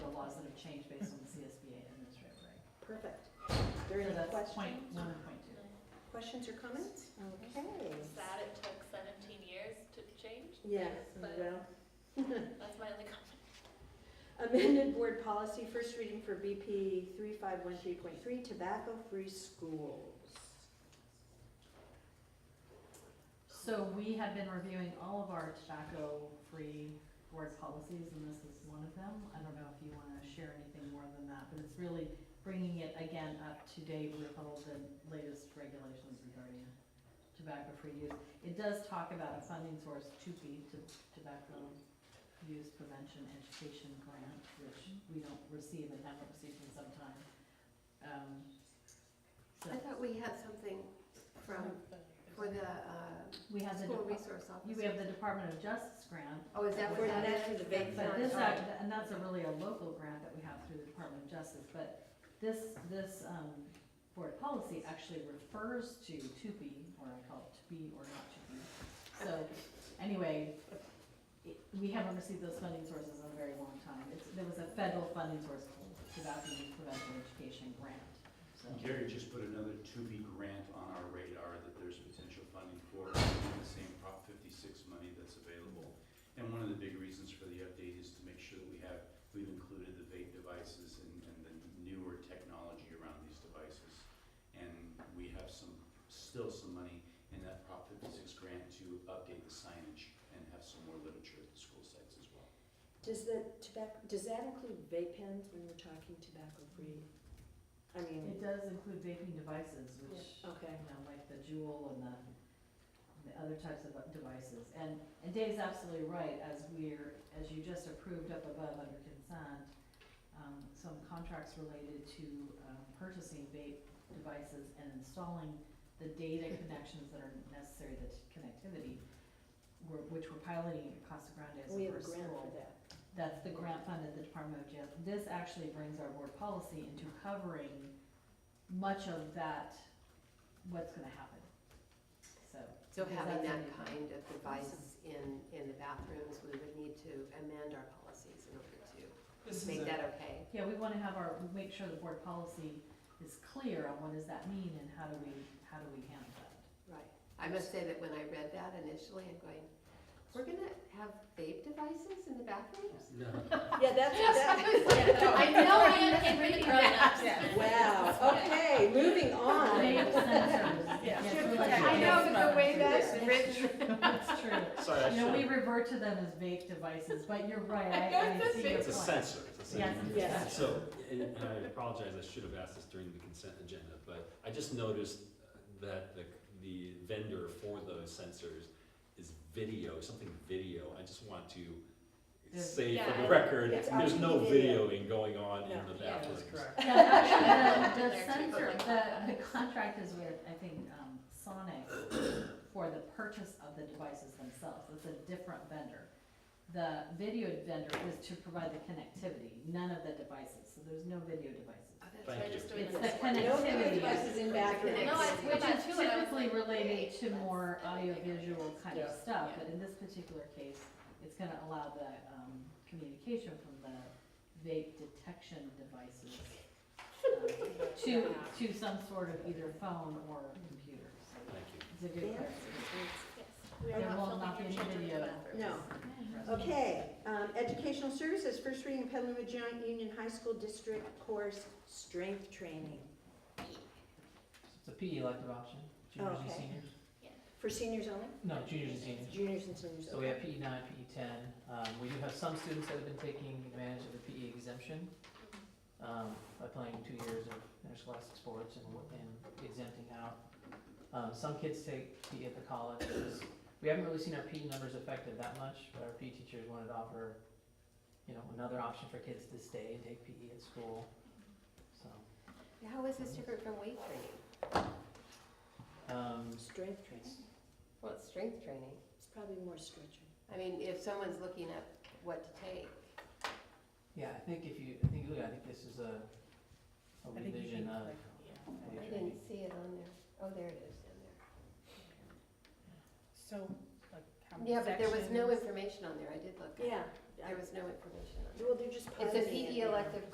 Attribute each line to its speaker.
Speaker 1: would change based on the CSBA administrative reg.
Speaker 2: Perfect. There
Speaker 1: So
Speaker 2: any
Speaker 1: that's point
Speaker 2: questions?
Speaker 1: one and point two.
Speaker 2: Questions or comments? Okay.
Speaker 3: Sad it took seventeen years to change.
Speaker 2: Yes,
Speaker 3: But-
Speaker 2: well,
Speaker 3: That's my only comment.
Speaker 2: amended board policy, first reading for BP three five one three point three, tobacco-free schools.
Speaker 1: So we had been reviewing all of our tobacco-free board policies, and this is one of them. I don't know if you wanna share anything more than that, but it's really bringing it again up to date with all the latest regulations regarding tobacco-free use. It does talk about a funding source to be to tobacco use prevention education grant, which we don't receive and haven't received in some time. Um, so
Speaker 4: I thought we had something from, for the uh,
Speaker 1: we have the.
Speaker 4: school
Speaker 1: depa-
Speaker 4: resource
Speaker 1: You have
Speaker 4: officer.
Speaker 1: the Department of Justice grant,
Speaker 4: Oh, is that
Speaker 2: For
Speaker 4: what that
Speaker 2: that- for
Speaker 4: is?
Speaker 2: the vape
Speaker 1: but
Speaker 2: Not
Speaker 1: this,
Speaker 2: sorry.
Speaker 1: act- and that's a really a local grant that we have through the Department of Justice, but this, this, um, board policy actually refers to to be, or I call it to be or not to be. So, anyway, it, we haven't received those funding sources in a very long time. It's, there was a federal funding source called tobacco use prevention education grant, so.
Speaker 5: Gary just put another two-B grant on our radar that there's potential funding for, in the same Prop fifty-six money that's available. And one of the big reasons for the update is to make sure that we have, we've included the vape devices and, and the newer technology around these devices. And we have some, still some money in that Prop fifty-six grant to update the signage and have some more literature at the school sites as well.
Speaker 2: Does the tobacco, does that include vape pens when we're talking tobacco-free? I mean,
Speaker 1: It does include vaping devices, which,
Speaker 2: okay.
Speaker 1: you know, like the Juul and the, and the other types of devices. And, and Dave's absolutely right, as we're, as you just approved up above under consent, um, some contracts related to, um, purchasing vape devices and installing the data connections that are necessary, the t- connectivity, were- which we're piloting at Costa Grande as
Speaker 2: We
Speaker 1: a
Speaker 2: have a
Speaker 1: first school.
Speaker 2: grant for that.
Speaker 1: That's the grant fund at the Department of Justice. This actually brings our board policy into covering much of that, what's gonna happen, so.
Speaker 4: So
Speaker 1: because
Speaker 4: having
Speaker 1: that's
Speaker 4: that
Speaker 1: in-
Speaker 4: kind of device in, in the bathrooms, we would need to amend our policies in order to
Speaker 6: This is
Speaker 4: make
Speaker 6: a,
Speaker 4: that okay.
Speaker 1: Yeah, we wanna have our, make sure the board policy is clear on what does that mean and how do we, how do we handle that?
Speaker 4: Right. I must say that when I read that initially, I'm going, we're gonna have vape devices in the bathrooms?
Speaker 2: Yeah, that's, that,
Speaker 3: I know I am for the
Speaker 4: Oh,
Speaker 3: grown-ups.
Speaker 2: wow, okay, moving on.
Speaker 1: Vape sensors.
Speaker 6: Yeah.
Speaker 1: Yes, we're like-
Speaker 4: I know, but the way
Speaker 1: Yes,
Speaker 4: that
Speaker 1: it's true. It's true.
Speaker 5: Sorry,
Speaker 1: You know, we revert to them as vape devices, but you're right, I, I see your point.
Speaker 7: It's a sensor. It's a
Speaker 1: Yes,
Speaker 7: sensor.
Speaker 2: yes.
Speaker 7: So, and and I apologize, I should have asked this during the consent agenda, but I just noticed that the, the vendor for those sensors is video, something video. I just want to
Speaker 1: There's-
Speaker 7: say for
Speaker 3: Yeah.
Speaker 7: the record,
Speaker 2: It's
Speaker 7: there's no
Speaker 2: RGB video.
Speaker 7: videoing going on in
Speaker 2: No.
Speaker 7: the
Speaker 3: Yeah, that's
Speaker 7: bathrooms.
Speaker 6: that's correct.
Speaker 1: Yeah, actually, the, the
Speaker 3: They're cheaper
Speaker 1: sensor,
Speaker 3: like that.
Speaker 1: the, the contract is with, I think, um, Sonic for the purchase of the devices themselves, it's a different vendor. The video vendor is to provide the connectivity, none of the devices, so there's no video devices.
Speaker 4: Oh, that's
Speaker 7: Thank
Speaker 4: right.
Speaker 3: We're just doing
Speaker 1: It's
Speaker 3: this
Speaker 1: the
Speaker 3: one.
Speaker 2: No video
Speaker 1: Connectivity.
Speaker 2: devices in bathrooms.
Speaker 3: No, I-
Speaker 1: Which is
Speaker 3: Yeah, that's
Speaker 1: typically
Speaker 3: what I was like,
Speaker 1: related
Speaker 3: wait,
Speaker 1: to
Speaker 3: that's
Speaker 1: more
Speaker 3: everything I
Speaker 1: audiovisual kind of
Speaker 6: Yeah.
Speaker 1: stuff,
Speaker 3: Yeah.
Speaker 1: but in this particular case, it's gonna allow the, um, communication from the vape detection devices um, to, to some sort of either phone or computer, so
Speaker 7: Thank you.
Speaker 1: it's a good clarification.
Speaker 3: Yes.
Speaker 2: We are
Speaker 1: There
Speaker 3: Not
Speaker 1: will not be
Speaker 3: filming
Speaker 1: any
Speaker 3: your children in the
Speaker 1: video.
Speaker 3: bathroom.
Speaker 2: No. Okay, um, educational services, first reading Petaluma Joint Union High School District course, strength training
Speaker 6: It's a PE elective option, juniors and
Speaker 2: Okay.
Speaker 6: seniors.
Speaker 2: for seniors only?
Speaker 6: No, juniors and seniors.
Speaker 2: Juniors and seniors,
Speaker 6: So we
Speaker 2: okay.
Speaker 6: have E PE nine, PE ten. Um, we do have some students that have been taking advantage of the PE exemption um, by playing two years of interscholastic sports and, wo- and exempting out. Um, some kids take PE at the college. It's- We haven't really seen our PE numbers affected that much, but our PE teachers wanted to offer, you know, another option for kids to stay and take PE at school. So,
Speaker 4: How is this different from weight training?
Speaker 6: um,
Speaker 2: Strength training,
Speaker 4: Well, it's strength training.
Speaker 2: it's probably more stretching.
Speaker 4: I mean, if someone's looking up what to take,
Speaker 6: yeah, I think if you, I think, I think this is a, a revision of. weight
Speaker 4: I
Speaker 6: training.
Speaker 4: didn't see it on there. Oh, there it is in there.
Speaker 8: So, like, how many
Speaker 4: Yeah, but there was no
Speaker 8: sections?
Speaker 4: information on there. I did look.
Speaker 2: Yeah,
Speaker 4: There was no information on there.
Speaker 2: well, they're just.
Speaker 4: It's a
Speaker 2: pausing it
Speaker 4: PE
Speaker 2: now.
Speaker 4: elective